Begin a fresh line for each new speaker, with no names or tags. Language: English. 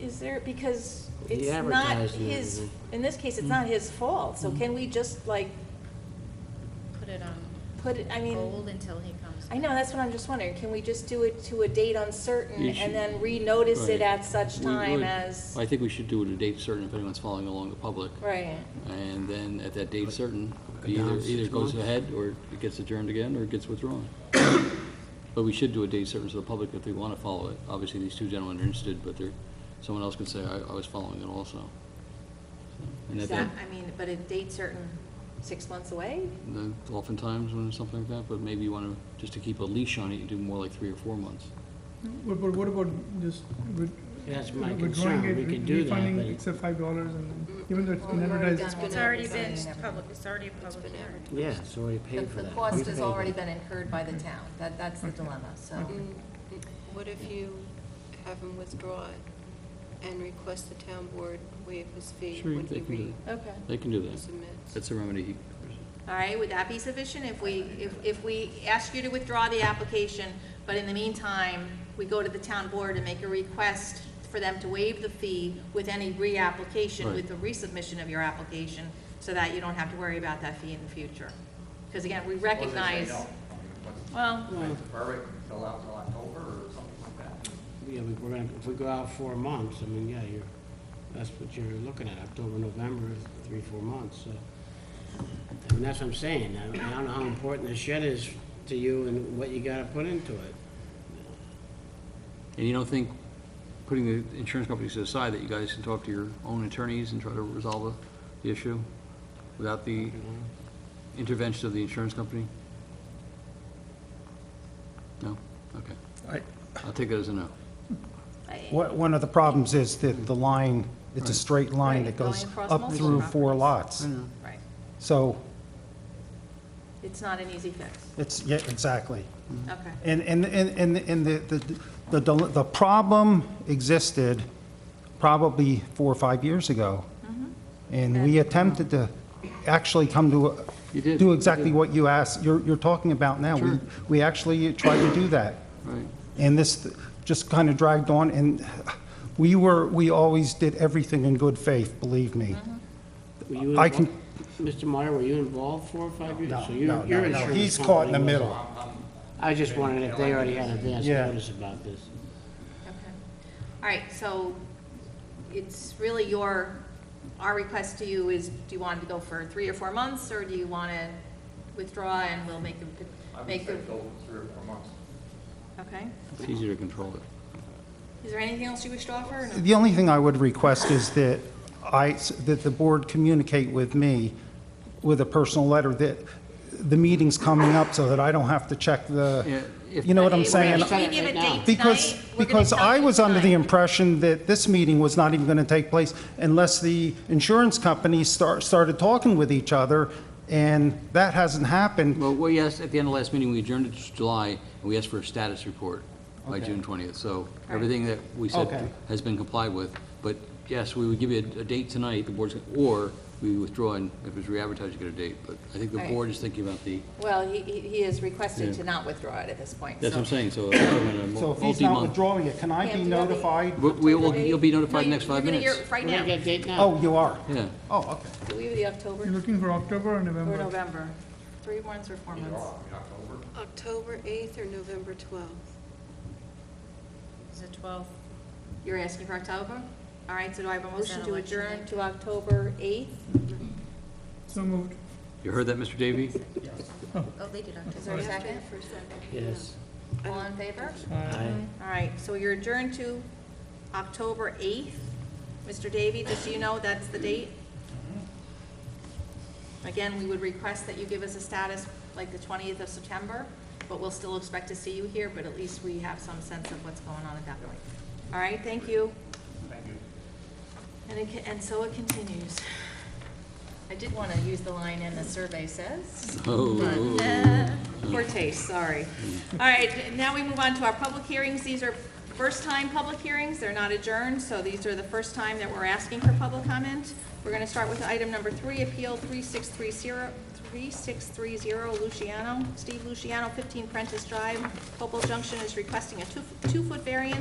is there, because
He
it's not
advertised it,
his,
didn't
in this case, it's not his fault, so can we just like
Put it on
put it, I mean,
hold until he comes.
I know, that's what I'm just wondering, can we just do it to a date uncertain
You should-
and then renotice it
Right.
at such
We
time
would-
as,
I think we should do it at a date certain if anyone's following along the public.
right?
And then at that date certain,
Go
either,
down
either
six
goes
months.
ahead or it gets adjourned again or it gets withdrawn. But we should do a date certain so the public, if they want to follow it, obviously these two gentlemen are interested, but they're, someone else could say, I, I was following it also. So, And at
Is
that,
that, I mean, but a date certain, six months away?
then oftentimes when it's something like that, but maybe you want to, just to keep a leash on it, you do more like three or four months.
What, but what about just with?
That's my
withdrawing
concern.
it,
We
re-
could do that,
Refunding
but-
except five dollars and even though it's been
Well, we've already
advertised.
done
It's
one.
already been public, it's already a public hearing.
Yeah, it's already
The
paid for
the
that. We
cost has
paid
already
it.
been incurred by the town, that, that's the dilemma, so.
Mm,
Mm,
What if you have him withdraw it and request the town board waive his fee
Sure,
when
they
he
can do
Okay.
They can do that.
resubmits?
That's a remedy he
All right, would that be sufficient if we, if, if we ask you to withdraw the application, but in the meantime, we go to the town board and make a request for them to waive the fee with any reapplication,
Right.
with the resubmission of your application, so that you don't have to worry about that fee in the future? Because again, we
Or they say
recognize,
no. I mean, what's-
well,
Well,
Defer it until out till October or something like that.
Yeah, we- we're gonna, if we go out four months, I mean, yeah, you're, that's what you're looking at, October, November, three, four months, so. I mean, that's what I'm saying, I I don't know how important the shed is to you and what you gotta put into it.
And you don't think, putting the insurance companies to the side, that you guys can talk to your own attorneys and try to resolve the- the issue without the intervention of the insurance company? No? Okay.
I-
I'll take that as a no.
What- One of the problems is that the line, it's a straight line
Right,
that goes
going across
up
multiple
through four
properties.
lots.
right,
So
it's not an easy fix,
it's, yeah, exactly.
okay.
And, and, and, and and the, the, the, the problem existed probably four or five years ago. And we attempted to actually come to, a-
You did,
do
you
exactly
did.
what you asked, you're, you're talking about now. We
Sure.
We actually tried to do that.
Right.
And this just kind of dragged on, and we were, we always did everything in good faith, believe me.
Mm-hmm.
Were you
I can-
involved- Mr. Meyer, were you involved four or five years?
No,
So your-
no,
your
no, no,
insurance
he's caught in the
company was-
middle.
I just wondered if they already had advance
Yeah.
notice about this.
Okay. All right, so it's really your, our request to you is, do you want to go for three or four months, or do you want to withdraw and we'll make
I
the,
would
make the,
say go three or four months.
okay?
It's easier to control it.
Is there anything else you wish to offer? or no?
The only thing I would request is that I, that the board communicate with me with a personal letter that the meeting's coming up so that I don't have to check
Yeah,
the,
if-
you know what I'm
If we-
saying?
If we give a date tonight,
Because,
we're gonna
because
tell
I
you
was under the
tonight.
impression that this meeting was not even going to take place unless the insurance companies start, started talking with each other, and that hasn't happened.
Well, we asked, at the end of last meeting, we adjourned it to July, and we asked for a status report by
Okay.
June 20th. So everything that we said
Okay.
has been complied with. But yes, we would give you a a date tonight, the board's, or we withdraw, and if it's re-advertised, you get a date. But I think the
All right.
board is thinking about the,
Well, he, he he is
Yeah.
requested to not withdraw it at this point,
that's what I'm
so-
saying, so. it's been a mul-
So if he's not
multi-month-
withdrawing it, can I
Yeah,
be
do you have the-
notified?
We- We will,
October
you'll be
eighth?
notified in the
No,
next
you-
five minutes.
You're going
We're
to
gonna
hear
get a
it
date now.
Oh, you are?
Yeah.
Oh, okay.
right now. We have the October
You're looking for October or November?
or November, three months or four
Either
months.
or, I mean, October.
October 8th or November 12th?
Is it twelve?
You're asking for October? All right, so do I have a
Is that
motion to
election
adjourn
day?
to October 8th?
So moved.
You heard that, Mr. Davy?
Oh, they did October.
Is there a second?
Yes.
All in favor?
I-
All right, so you're adjourned to October 8th. Mr. Davy, just so you know, that's the date. Again, we would request that you give us a status like the 20th of September, but we'll still expect to see you here, but at least we have some sense of what's going on at that point. All right, thank you.
Thank you.
And it, ca- and so it continues. I did want to use the line, and the survey says.
Oh.
Poor taste, sorry. All right, now we move on to our public hearings. These are first-time public hearings, they're not adjourned, so these are the first time that we're asking for public comment. We're going to start with item number three, Appeal 3630, 3630 Luciano. Steve Luciano, 15 Prentice Drive, Hopewell Junction is requesting a two- two-foot variance